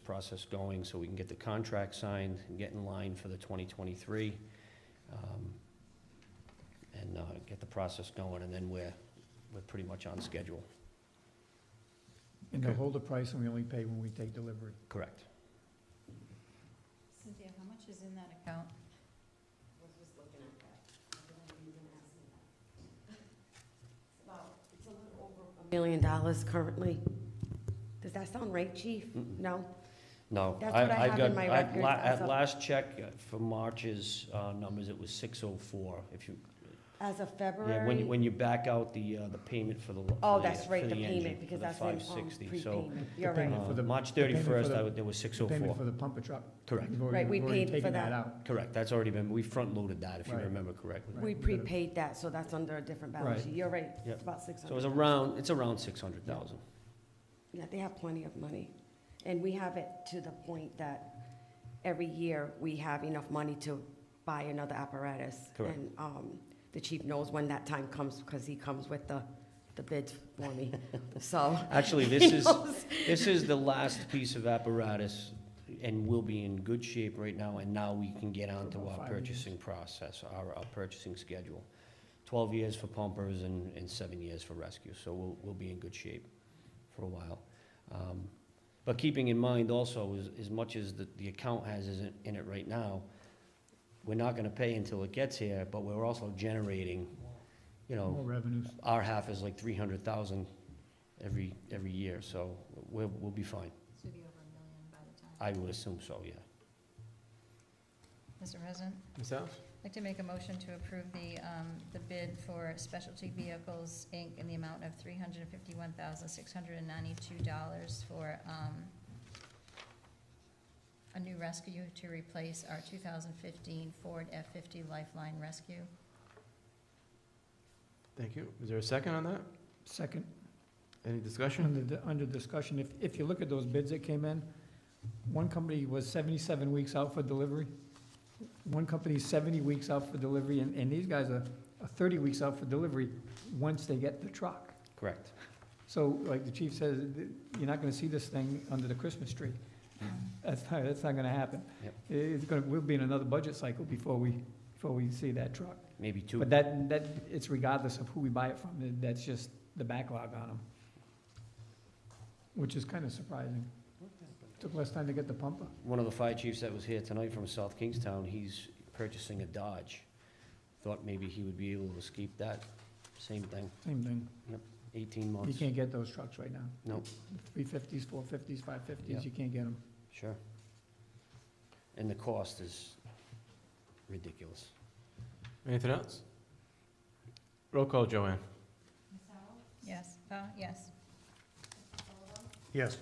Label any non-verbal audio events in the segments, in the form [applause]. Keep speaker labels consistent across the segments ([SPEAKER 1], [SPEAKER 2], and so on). [SPEAKER 1] process going so we can get the contract signed and get in line for the 2023. um, And uh, get the process going, and then we're, we're pretty much on schedule.
[SPEAKER 2] And they'll
[SPEAKER 3] Okay.
[SPEAKER 2] hold the price and we only pay when we take delivery.
[SPEAKER 1] Correct.
[SPEAKER 4] Cynthia, how much is in that account?
[SPEAKER 5] was just looking at that. I feel like you didn't ask me that. [laughs] It's about, it's a little over a million dollars currently. Does that sound right, chief?
[SPEAKER 1] Mm-mm.
[SPEAKER 5] No?
[SPEAKER 1] No.
[SPEAKER 5] That's
[SPEAKER 1] I-
[SPEAKER 5] what I
[SPEAKER 1] I've
[SPEAKER 5] have
[SPEAKER 1] got-
[SPEAKER 5] in my
[SPEAKER 1] I've
[SPEAKER 5] records
[SPEAKER 1] la- At
[SPEAKER 5] also.
[SPEAKER 1] last check uh, for March's uh, numbers, it was 604. If you,
[SPEAKER 5] As of
[SPEAKER 1] yeah, when you,
[SPEAKER 5] February?
[SPEAKER 1] when you back out the, uh, the payment for the. lo-
[SPEAKER 5] Oh,
[SPEAKER 1] for the-
[SPEAKER 5] that's right,
[SPEAKER 1] for
[SPEAKER 5] the
[SPEAKER 1] engine,
[SPEAKER 5] payment,
[SPEAKER 1] for
[SPEAKER 5] because
[SPEAKER 1] the
[SPEAKER 5] that's when, um,
[SPEAKER 1] 560. So,
[SPEAKER 5] prepayment. You're
[SPEAKER 2] The payment
[SPEAKER 5] right.
[SPEAKER 2] for
[SPEAKER 1] uh,
[SPEAKER 2] the-
[SPEAKER 1] March
[SPEAKER 2] the payment for
[SPEAKER 1] 31st,
[SPEAKER 2] the-
[SPEAKER 1] I would- there was
[SPEAKER 2] The Payment
[SPEAKER 1] 604.
[SPEAKER 2] for the pumper truck.
[SPEAKER 1] Correct,
[SPEAKER 2] We've already-
[SPEAKER 5] Right, we
[SPEAKER 2] we've already
[SPEAKER 5] paid for
[SPEAKER 2] taken
[SPEAKER 5] that.
[SPEAKER 2] out.
[SPEAKER 1] correct. That's already been, we front-loaded that, if you
[SPEAKER 2] Right.
[SPEAKER 1] remember correctly.
[SPEAKER 2] Right.
[SPEAKER 5] We
[SPEAKER 2] we gotta-
[SPEAKER 5] prepaid that, so that's under a different
[SPEAKER 2] Right.
[SPEAKER 5] balance sheet. You're right.
[SPEAKER 1] Yep.
[SPEAKER 5] It's about six
[SPEAKER 1] So it's
[SPEAKER 5] hundred.
[SPEAKER 1] around, it's around 600,000.
[SPEAKER 5] Yeah, they have plenty of money. And we have it to the point that every year, we have enough money to buy another apparatus.
[SPEAKER 1] Correct.
[SPEAKER 5] And, um, the chief knows when that time comes, because he comes with the, the bids for
[SPEAKER 1] [laughs]
[SPEAKER 5] me, so.
[SPEAKER 1] Actually,
[SPEAKER 2] [laughs]
[SPEAKER 5] he
[SPEAKER 1] this is,
[SPEAKER 5] knows.
[SPEAKER 1] this is the last piece of apparatus, and we'll be in good shape right now, and now we can get on
[SPEAKER 2] For
[SPEAKER 1] to
[SPEAKER 2] about
[SPEAKER 1] our
[SPEAKER 2] five years.
[SPEAKER 1] purchasing process, our, our purchasing schedule. Twelve years for pumpers and, and seven years for rescue, so we'll, we'll be in good shape for a while. Um, But keeping in mind also, as, as much as the, the account has isn't in it right now, we're not gonna pay until it gets here, but we're also generating, you know,
[SPEAKER 3] Oh.
[SPEAKER 2] More revenues.
[SPEAKER 1] our half is like three hundred thousand every, every year, so we'll, we'll be fine.
[SPEAKER 4] Should be over a million by the time.
[SPEAKER 1] I would assume so, yeah.
[SPEAKER 4] Mr. President,
[SPEAKER 3] Myself?
[SPEAKER 4] I'd like to make a motion to approve the, um, the bid for Specialty Vehicles, Inc. in the amount of three hundred and fifty-one thousand, six hundred and ninety-two dollars for, um, a new rescue to replace our two thousand fifteen Ford F-fifty Lifeline Rescue.
[SPEAKER 3] Thank you. Is there a second on that?
[SPEAKER 2] Second,
[SPEAKER 3] Any discussion?
[SPEAKER 2] under, di- under discussion, if, if you look at those bids that came in, one company was seventy-seven weeks out for delivery. One company's seventy weeks out for delivery, and, and these guys are, are thirty weeks out for delivery once they get the truck.
[SPEAKER 1] Correct.
[SPEAKER 2] So like the chief says, th- you're not gonna see this thing under the Christmas tree. That's not, that's not gonna happen.
[SPEAKER 1] Yep.
[SPEAKER 2] It- It's gonna, we'll be in another budget cycle before we, before we see that truck.
[SPEAKER 1] Maybe two.
[SPEAKER 2] But that, that, it's regardless of who we buy it from, That- that's just the backlog on them. Which is kinda surprising. Took less time to get the pumper.
[SPEAKER 1] One of the fire chiefs that was here tonight from South Kingstown, he's purchasing a Dodge. Thought maybe he would be able to escape that. Same thing,
[SPEAKER 2] Same thing.
[SPEAKER 1] eighteen
[SPEAKER 2] You
[SPEAKER 1] months.
[SPEAKER 2] can't get those trucks right now.
[SPEAKER 1] No.
[SPEAKER 2] Three fifties, four fifties, five
[SPEAKER 1] Yeah.
[SPEAKER 2] fifties, you can't get them.
[SPEAKER 1] Sure. And the cost is ridiculous.
[SPEAKER 3] Anything else? Roll call, Joanne.
[SPEAKER 4] Yes, uh, yes.
[SPEAKER 2] Yes.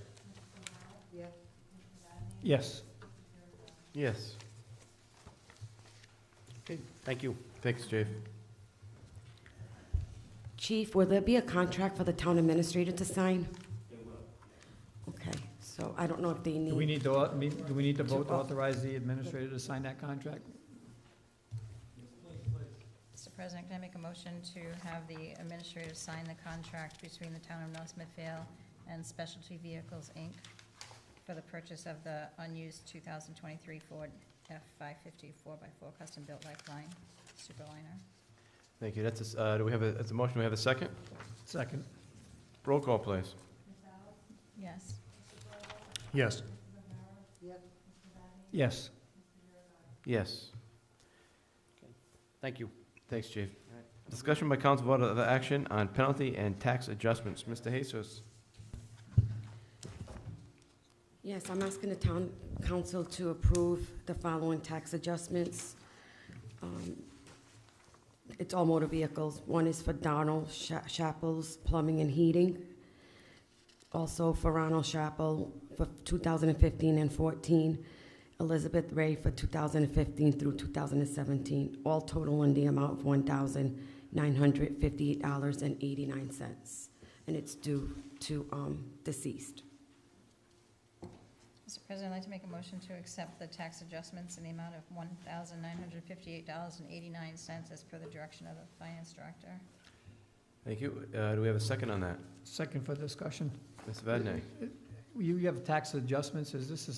[SPEAKER 5] Yeah.
[SPEAKER 2] Yes.
[SPEAKER 3] Yes.
[SPEAKER 1] Okay, thank you.
[SPEAKER 3] Thanks, Dave.
[SPEAKER 5] Chief, will there be a contract for the town administrator to sign? Okay, so I don't know if they
[SPEAKER 2] Do we
[SPEAKER 5] need,
[SPEAKER 2] need to, au- me- do we need to vote to
[SPEAKER 5] au-
[SPEAKER 2] authorize the administrator to sign that contract?
[SPEAKER 4] Mr. President, can I make a motion to have the administrator sign the contract between the town of North Smithfield and Specialty Vehicles, Inc. for the purchase of the unused 2023 Ford F-550 4x4 custom-built Lifeline Superliner?
[SPEAKER 3] Thank you. That's, a s- uh, do we have a, that's a motion. Do we have a second?
[SPEAKER 2] Second.
[SPEAKER 3] Roll call, please.
[SPEAKER 4] Yes.
[SPEAKER 2] Yes. Yes.
[SPEAKER 3] Yes.
[SPEAKER 1] Thank you.
[SPEAKER 3] Thanks, Chief. Discussion by council vote of action on penalty and tax adjustments. Mr. Jesus.
[SPEAKER 5] yes, I'm asking the town council to approve the following tax adjustments. Um, It's all motor vehicles. One is for Donald Sha- Chappell's Plumbing and Heating. Also for Ronald Chappell for 2015 and 14. Elizabeth Ray for 2015 through 2017, all total in the amount of $1,958.89. And it's due to um, deceased.
[SPEAKER 4] Mr. President, I'd like to make a motion to accept the tax adjustments in the amount of $1,958.89 as per the direction of the finance director.
[SPEAKER 3] Thank you. Uh, do we have a second on that?
[SPEAKER 2] Second for discussion.
[SPEAKER 3] Mr. Vadney.
[SPEAKER 2] You have tax adjustments, is this the